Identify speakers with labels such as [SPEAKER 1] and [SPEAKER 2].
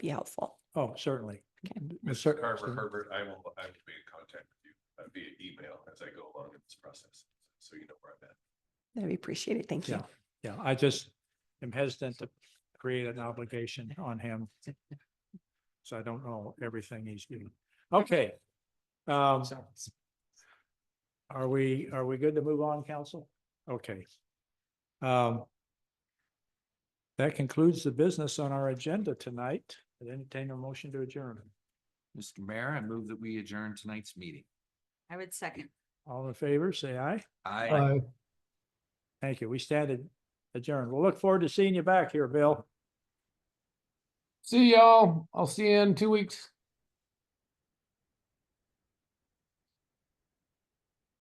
[SPEAKER 1] be helpful.
[SPEAKER 2] Oh, certainly.
[SPEAKER 1] Okay.
[SPEAKER 2] Cer-
[SPEAKER 3] Mr. Carver
[SPEAKER 2] certainly.
[SPEAKER 3] Herbert, I will, I will be in contact with you uh, via email as I go along in this process, so you know where I'm at.
[SPEAKER 1] That'd be appreciated. Thank you.
[SPEAKER 2] Yeah, yeah, I just am hesitant to create an obligation on him. So I don't know everything he's doing. Okay. Um, are we, are we good to move on, council? Okay. Um, that concludes the business on our agenda tonight. I'd entertain a motion to adjourn.
[SPEAKER 4] Mr. Mayor, I move that we adjourn tonight's meeting.
[SPEAKER 5] I would second.
[SPEAKER 2] All in favor, say aye.
[SPEAKER 4] I.
[SPEAKER 2] Thank you. We stand adjourned. We'll look forward to seeing you back here, Bill.
[SPEAKER 6] See y'all. I'll see you in two weeks.